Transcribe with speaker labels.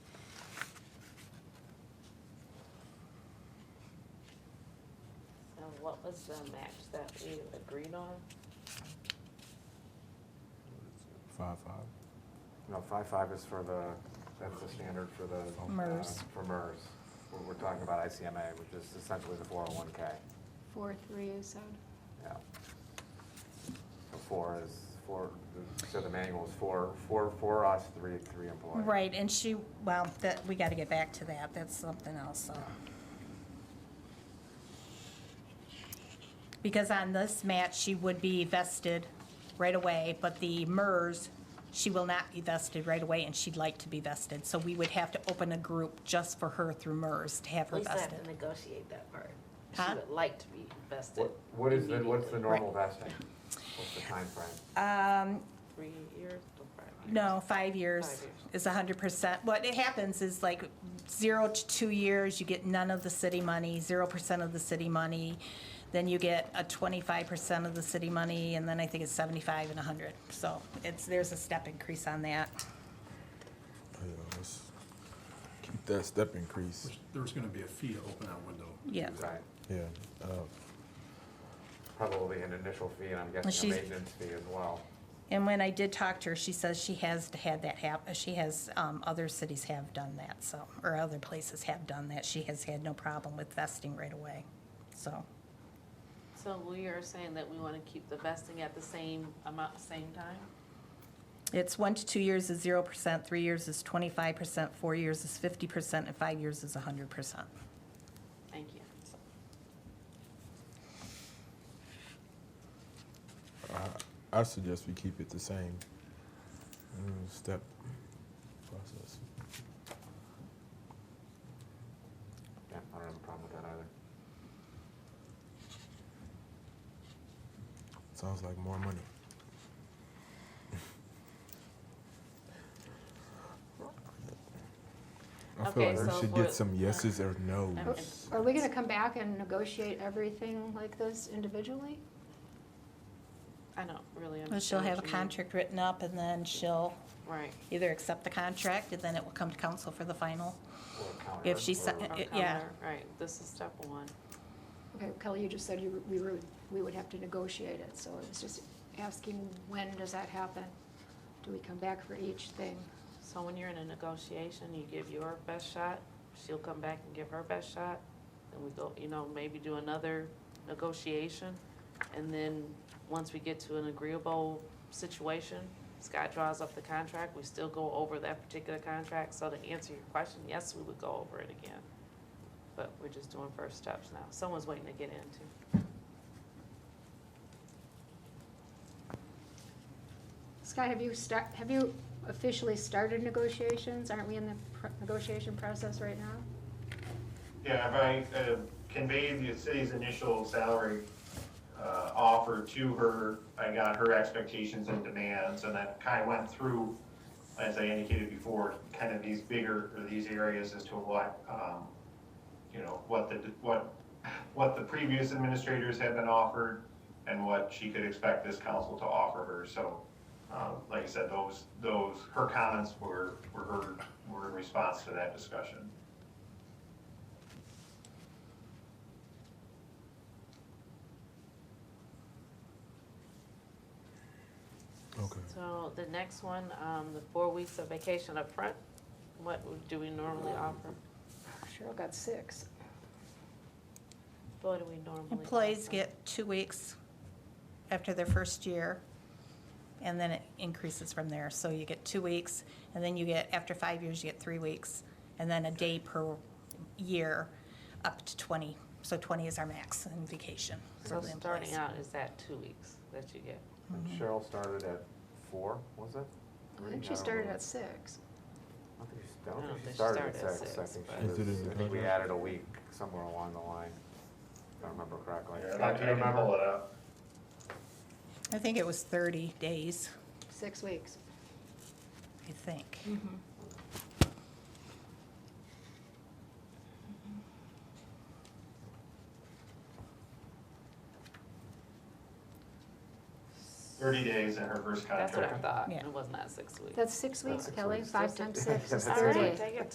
Speaker 1: what was the match that we agreed on?
Speaker 2: Five, five.
Speaker 3: No, five-five is for the, that's the standard for the. uh,
Speaker 4: MERS.
Speaker 3: For MERS. We're, we're talking about ICMA, which is essentially the four oh one K,
Speaker 5: Four, three is out.
Speaker 3: yeah. So four is, four, so the manual is four, four, for us, three, three employees.
Speaker 4: Right, and she, well, that, we gotta get back to that, that's something else, so. Because on this match, she would be vested right away, but the MERS, she will not be vested right away, and she'd like to be vested, so we would have to open a group just for her through MERS to have her
Speaker 1: Lisa had to
Speaker 4: vested.
Speaker 1: negotiate that part.
Speaker 4: Huh?
Speaker 1: She would like to be vested.
Speaker 3: What, what is the, what's the
Speaker 1: immediately.
Speaker 3: normal vesting? What's the timeframe?
Speaker 4: Um,
Speaker 1: Three years or five years?
Speaker 4: No, five years
Speaker 1: Five years.
Speaker 4: is hundred percent. What it happens is like zero to two years, you get none of the city money, zero percent of the city money. Then you get a twenty-five percent of the city money, and then I think it's seventy-five and a hundred. So it's, there's a step increase on that.
Speaker 2: Yeah, let's keep that step increase.
Speaker 6: There's gonna be a fee to open that window.
Speaker 4: Yeah.
Speaker 3: Right,
Speaker 2: Yeah, uh,
Speaker 3: probably an initial fee, and I'm guessing a
Speaker 4: She's-
Speaker 3: maintenance fee as well.
Speaker 4: And when I did talk to her, she says she has had that hap, she has, um, other cities have done that, so, or other places have done that. She has had no problem with vesting right away, so.
Speaker 1: So we are saying that we want to keep the vesting at the same amount, same time?
Speaker 4: It's one to two years is zero percent, three years is twenty-five percent, four years is fifty percent, and five years is hundred percent.
Speaker 1: Thank you.
Speaker 2: I, I suggest we keep it the same mm, step process.
Speaker 3: Yeah, I don't have a problem with that either.
Speaker 2: Sounds like more money. I feel
Speaker 1: Okay,
Speaker 2: like we
Speaker 1: so
Speaker 2: should
Speaker 1: for-
Speaker 2: get some yeses or
Speaker 5: Are-
Speaker 1: Okay.
Speaker 2: nos.
Speaker 5: Are we gonna come back and negotiate everything like this individually?
Speaker 1: I don't really understand.
Speaker 4: Well, she'll have a
Speaker 1: what you mean.
Speaker 4: contract written up, and then she'll
Speaker 1: Right.
Speaker 4: either accept the contract, and then it will come to council for the final.
Speaker 3: Or a counter,
Speaker 4: If she
Speaker 3: or-
Speaker 4: si-
Speaker 1: Our
Speaker 4: It- Uh, yeah.
Speaker 1: counter, Right, this is step one.
Speaker 5: Okay, Kelly, you just said you, we were, we would have to negotiate it, so I was just asking, when does that happen? Do we come back for each thing?
Speaker 1: So when you're in a negotiation, you give your best shot, she'll come back and give her best shot, then we go, you know, maybe do another negotiation. And then, once we get to an agreeable situation, Scott draws up the contract, we still go over that particular contract. So to answer your question, yes, we would go over it again. But we're just doing first steps now. Someone's waiting to get into.
Speaker 5: Scott, have you start, have you officially started negotiations? Aren't we in the pr- negotiation process right now?
Speaker 7: Yeah, if I uh, conveyed the city's initial salary uh, offer to her, I got her expectations and demands, and then kind of went through, as I indicated before, kind of these bigger, or these areas as to what, um, you know, what the, what, what the previous administrators had been offered, and what she could expect this council to offer her, so, um, like I said, those, those, her comments were, were heard, were in response to that discussion.
Speaker 2: Okay.
Speaker 1: So the next one, um, the four weeks of vacation up front. what would- do we normally offer?
Speaker 5: Cheryl got six.
Speaker 1: What do we normally?
Speaker 4: Employees
Speaker 1: offer?
Speaker 4: get two weeks after their first year, and then it increases from there. So you get two weeks, and then you get, after five years, you get three weeks, and then a day per year, up to 20. So 20 is our max in vacation for
Speaker 1: So
Speaker 4: the
Speaker 1: starting
Speaker 4: employees.
Speaker 1: out is that two weeks that you get?
Speaker 4: uh,
Speaker 3: And Cheryl started at four, was it?
Speaker 5: I think she started at six.
Speaker 3: I don't think she- I don't think she started at six, I think
Speaker 2: but- Is
Speaker 3: she
Speaker 2: it
Speaker 3: was,
Speaker 2: in the
Speaker 3: I think we
Speaker 2: contract?
Speaker 3: added a week somewhere along the line, if I remember correctly.
Speaker 7: Yeah, I
Speaker 3: Scott, do
Speaker 7: can
Speaker 3: you
Speaker 7: pull
Speaker 3: remember?
Speaker 7: it up.
Speaker 4: I think it was 30 days,
Speaker 5: Six weeks.
Speaker 4: I think.
Speaker 7: Thirty days in her first
Speaker 1: That's
Speaker 7: contract.
Speaker 1: what I thought,
Speaker 4: Yeah.
Speaker 1: it was not six weeks.
Speaker 5: That's six
Speaker 3: That's
Speaker 5: weeks,
Speaker 3: six
Speaker 5: Kelly.
Speaker 3: weeks.
Speaker 5: Five
Speaker 1: That's
Speaker 5: times
Speaker 1: six
Speaker 5: six is
Speaker 3: All right,
Speaker 5: thirty.
Speaker 1: take it